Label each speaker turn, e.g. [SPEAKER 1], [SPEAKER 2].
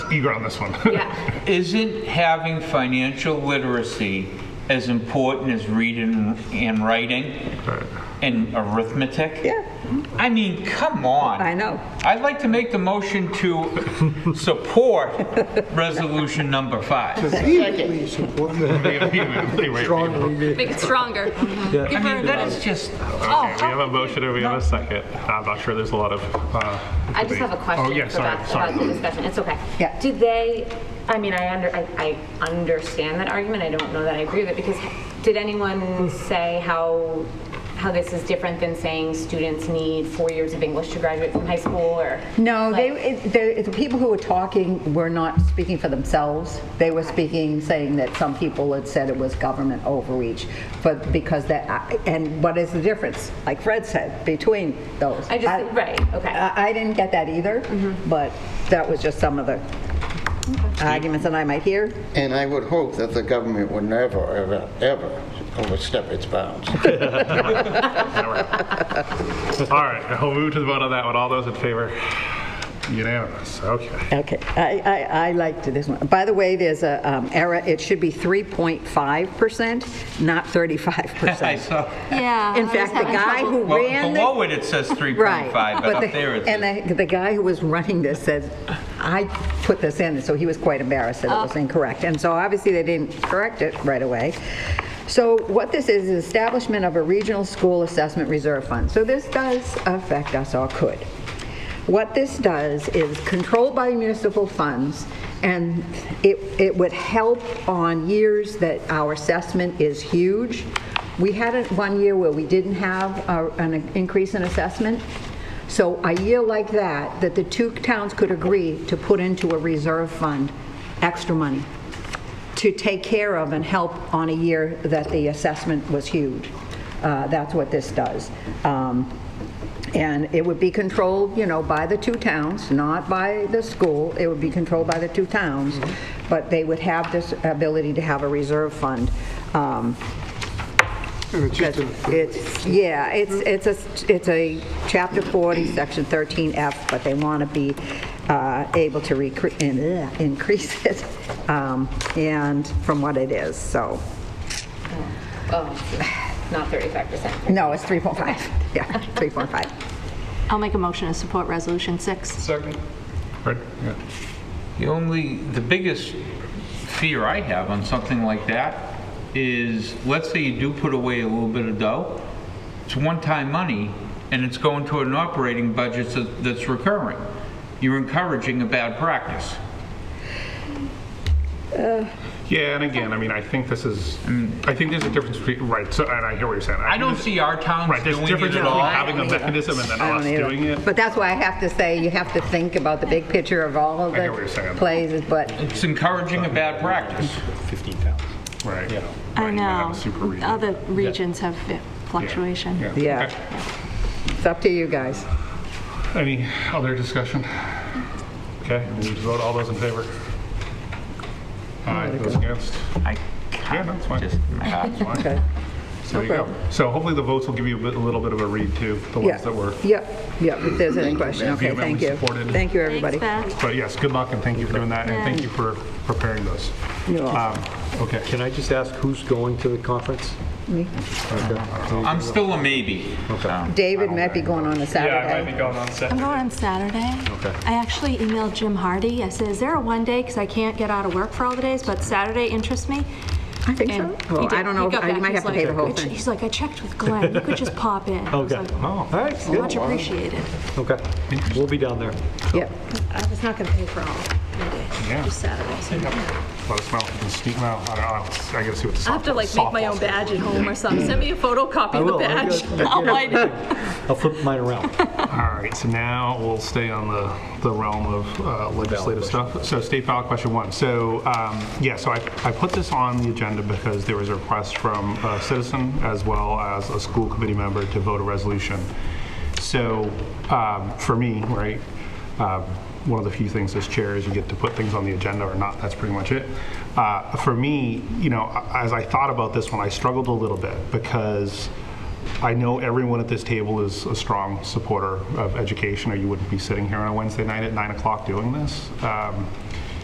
[SPEAKER 1] eager on this one.
[SPEAKER 2] Yeah.
[SPEAKER 3] Isn't having financial literacy as important as reading and writing
[SPEAKER 1] Right.
[SPEAKER 3] and arithmetic?
[SPEAKER 4] Yeah.
[SPEAKER 3] I mean, come on.
[SPEAKER 4] I know.
[SPEAKER 3] I'd like to make the motion to support resolution number five.
[SPEAKER 5] Second. support that
[SPEAKER 1] Wait, wait, wait, wait, wait.
[SPEAKER 5] strongly.
[SPEAKER 2] Make it stronger.
[SPEAKER 5] Yeah.
[SPEAKER 2] Give her
[SPEAKER 3] That
[SPEAKER 2] another.
[SPEAKER 3] is just,
[SPEAKER 6] Oh,
[SPEAKER 1] Okay, we have a motion and we have a second. Uh, I'm not sure there's a lot of. uh,
[SPEAKER 6] I just have a
[SPEAKER 1] debate.
[SPEAKER 6] question
[SPEAKER 1] Oh, yeah,
[SPEAKER 6] for
[SPEAKER 1] sorry,
[SPEAKER 6] Beth
[SPEAKER 1] sorry.
[SPEAKER 6] about the discussion. It's okay.
[SPEAKER 4] Yeah.
[SPEAKER 6] Do they, I mean, I under, I, I understand that argument. I don't know that I agree with it because did anyone say how, how this is different than saying students need four years of English to graduate from high school or?
[SPEAKER 4] No, they, it- the, the people who were talking were not speaking for themselves. They were speaking, saying that some people had said it was government overreach, but because that, and what is the difference, like Fred said, between those?
[SPEAKER 6] I just, right, okay. Mm-hmm.
[SPEAKER 4] I I didn't get that either, but that was just some of the arguments that I might hear.
[SPEAKER 5] And I would hope that the government would never, ever, ever overstep its bounds.
[SPEAKER 1] All right, we'll move to the vote on that one. All those in favor? Unanimous, okay.
[SPEAKER 4] Okay, I, I, I liked this one. By the way, there's a um, error, it should be 3.5%, not 35%.
[SPEAKER 3] I saw,
[SPEAKER 6] Uh,
[SPEAKER 2] Yeah.
[SPEAKER 4] In fact, the guy who
[SPEAKER 3] well,
[SPEAKER 4] ran the...
[SPEAKER 3] below it, it says 3.5,
[SPEAKER 4] Right,
[SPEAKER 3] but
[SPEAKER 4] the-
[SPEAKER 3] up there it says
[SPEAKER 4] And the, the guy who was running this says, I put this in, so he was quite embarrassed that it was incorrect. And so obviously they didn't correct it right away. So what this is, is establishment of a regional school assessment reserve fund. So this does affect us or could. What this does is controlled by municipal funds, and it, it would help on years that our assessment is huge. We had it one year where we didn't have a- an increase in assessment, so a year like that, that the two towns could agree to put into a reserve fund extra money to take care of and help on a year that the assessment was huge. Uh, That's what this does. Um, And it would be controlled, you know, by the two towns, not by the school. It would be controlled by the two towns, but they would have this ability to have a reserve fund. Um, it's, yeah, it's, it's a, it's a chapter 40, section 13F, but they want to be uh, able to recre- and, uh, increase it, um, and from what it is, so,
[SPEAKER 6] Oh, not 35%.
[SPEAKER 4] no, it's 3.5, yeah, 3.5.
[SPEAKER 2] I'll make a motion to support resolution six.
[SPEAKER 1] Second. Right, yeah.
[SPEAKER 3] The only, the biggest fear I have on something like that is, let's say you do put away a little bit of dough, it's one-time money, and it's going to an operating budget that- that's recurring. You're encouraging a bad practice.
[SPEAKER 1] Yeah, and again, I mean, I think this is, I think there's a difference between, right, so, and I hear what you're saying.
[SPEAKER 3] I don't see our towns
[SPEAKER 1] Right, there's a
[SPEAKER 3] doing
[SPEAKER 1] difference
[SPEAKER 3] it at
[SPEAKER 1] between
[SPEAKER 3] all.
[SPEAKER 1] having a mechanism and then
[SPEAKER 4] I
[SPEAKER 1] us
[SPEAKER 4] don't either.
[SPEAKER 1] doing it.
[SPEAKER 4] But that's why I have to say, you have to think about the big picture of all of
[SPEAKER 1] I hear what you're
[SPEAKER 4] the
[SPEAKER 1] saying.
[SPEAKER 4] plays, but
[SPEAKER 3] It's encouraging a bad practice.
[SPEAKER 1] Right. Yeah.
[SPEAKER 2] I know.
[SPEAKER 1] Super region.
[SPEAKER 2] Other regions have fluctuation.
[SPEAKER 1] Yeah.
[SPEAKER 4] Yeah.
[SPEAKER 1] Okay.
[SPEAKER 4] it's up to you guys.
[SPEAKER 1] Any other discussion? Okay, we need to vote. All those in favor? Aye, those against?
[SPEAKER 3] I
[SPEAKER 1] Yeah, that's fine.
[SPEAKER 3] just, my heart's wide.
[SPEAKER 4] Okay.
[SPEAKER 1] There you go. So hopefully the votes will give you a bit- a little bit of a read too, the
[SPEAKER 4] Yeah.
[SPEAKER 1] ones that were.
[SPEAKER 4] Yep, yep, if there's any question, okay,
[SPEAKER 1] vehemently
[SPEAKER 4] thank you.
[SPEAKER 1] supported.
[SPEAKER 4] Thank you, everybody.
[SPEAKER 2] Thanks, Beth.
[SPEAKER 1] But yes, good luck and thank you for doing that and thank
[SPEAKER 2] Yeah.
[SPEAKER 1] you for preparing those.
[SPEAKER 4] You're
[SPEAKER 1] Um, Okay.
[SPEAKER 7] Can I just ask who's going to the conference?
[SPEAKER 3] I'm still a maybe. so.
[SPEAKER 4] David might be going on a Saturday.
[SPEAKER 1] going on
[SPEAKER 2] I'm
[SPEAKER 1] second.
[SPEAKER 2] going on Saturday. Okay. I actually emailed Jim Hardy. I said, is there a one day, because I can't get out of work for all the days, but Saturday interests me?
[SPEAKER 4] I think so.
[SPEAKER 2] And he
[SPEAKER 4] Well,
[SPEAKER 2] did.
[SPEAKER 4] I don't
[SPEAKER 2] He
[SPEAKER 4] know,
[SPEAKER 2] got
[SPEAKER 4] I- you
[SPEAKER 2] back.
[SPEAKER 4] might have to
[SPEAKER 2] He's
[SPEAKER 4] pay
[SPEAKER 2] like,
[SPEAKER 4] the whole
[SPEAKER 2] "I ch-
[SPEAKER 4] thing.
[SPEAKER 2] He's like, I checked with Glenn. You could just pop in. I was
[SPEAKER 7] Okay.
[SPEAKER 2] like,
[SPEAKER 1] Oh,
[SPEAKER 7] All right.
[SPEAKER 2] Much appreciated.
[SPEAKER 7] Okay. We'll be down there.
[SPEAKER 4] Yep.
[SPEAKER 2] I was not going to pay for all
[SPEAKER 1] Yeah.
[SPEAKER 2] Monday, just Saturday.
[SPEAKER 1] Let us know. if you can Sneak them out. I don't know. I gotta see what the
[SPEAKER 8] I have to like make my own
[SPEAKER 1] softball-
[SPEAKER 8] badge at home or something. Send me a photocopy
[SPEAKER 7] I
[SPEAKER 8] of the
[SPEAKER 7] will. I
[SPEAKER 8] badge.
[SPEAKER 7] got- I
[SPEAKER 8] I'll light it.
[SPEAKER 7] I'll flip mine around.
[SPEAKER 1] All right, so now we'll stay on the, the realm of uh, legislative stuff. So state ballot question one. So, um, yeah, so I, I put this on the agenda because there was a request from a citizen as well as a school committee member to vote a resolution. So, um, for me, right, um, one of the few things as chair is you get to put things on the agenda or not. That's pretty much it. Uh, For me, you know, as I thought about this one, I struggled a little bit because I know everyone at this table is a strong supporter of education, or you wouldn't be sitting here on a Wednesday night at 9 o'clock doing this. Um,